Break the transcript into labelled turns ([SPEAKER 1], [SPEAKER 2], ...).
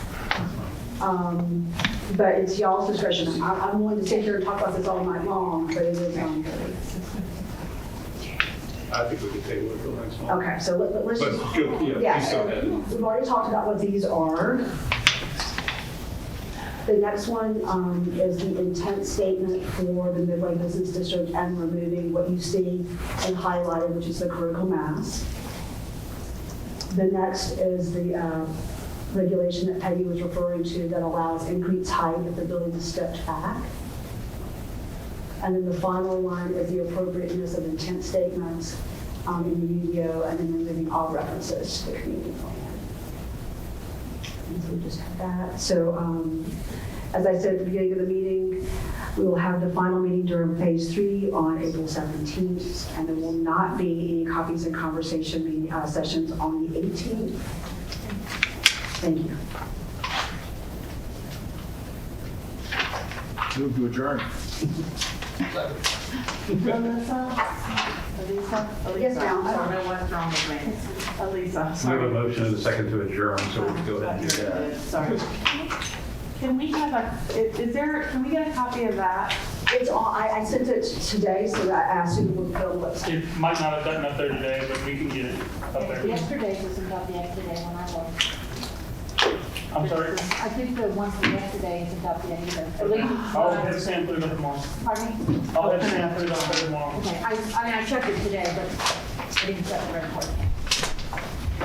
[SPEAKER 1] Um, But it's y'all's discretion. I- I'm willing to sit here and talk about this all night long, but it is on.
[SPEAKER 2] I think we could table it till next month.
[SPEAKER 1] Okay, so let- let's
[SPEAKER 2] But,
[SPEAKER 1] just.
[SPEAKER 2] good, yeah,
[SPEAKER 1] Yeah,
[SPEAKER 2] please go ahead.
[SPEAKER 1] We've already talked about what these are. The next one um, is the intent statement for the Midway Business District and removing what you see and highlighted, which is the critical mass. The next is the uh, regulation that Peggy was referring to that allows increased height if the building is stepped back. And then the final one is the appropriateness of intent statements um, in the UDO, and then removing all references to the community plan. And so we just have that. So um, as I said at the beginning of the meeting, we will have the final meeting during phase three on April 17th, and there will not be any copies and conversation meeting, uh, sessions on the 18th. Thank you.
[SPEAKER 3] Move to adjourn.
[SPEAKER 4] Alyssa? Alyssa?
[SPEAKER 1] Yes,
[SPEAKER 4] Alyssa.
[SPEAKER 1] ma'am.
[SPEAKER 4] I don't know what's wrong with me. Alyssa,
[SPEAKER 2] We have a
[SPEAKER 4] sorry.
[SPEAKER 2] motion and a second to adjourn, so we can go ahead and do that.
[SPEAKER 4] Sorry. Can we have a, is is there, can we get a copy of that?
[SPEAKER 1] It's all, I I sent it today, so that I asked you to look up what's
[SPEAKER 5] It might not have gotten up there today, but we can get it up there.
[SPEAKER 6] Yesterday's was about the yesterday when I was.
[SPEAKER 5] I'm sorry.
[SPEAKER 6] I think the one from yesterday is about the yesterday. At least it's
[SPEAKER 5] I'll have
[SPEAKER 6] mine.
[SPEAKER 5] Sam put it up tomorrow.
[SPEAKER 6] Pardon me?
[SPEAKER 5] I'll have Sam put it up there tomorrow.
[SPEAKER 6] Okay, I, I mean, I checked it today, but I didn't check the report.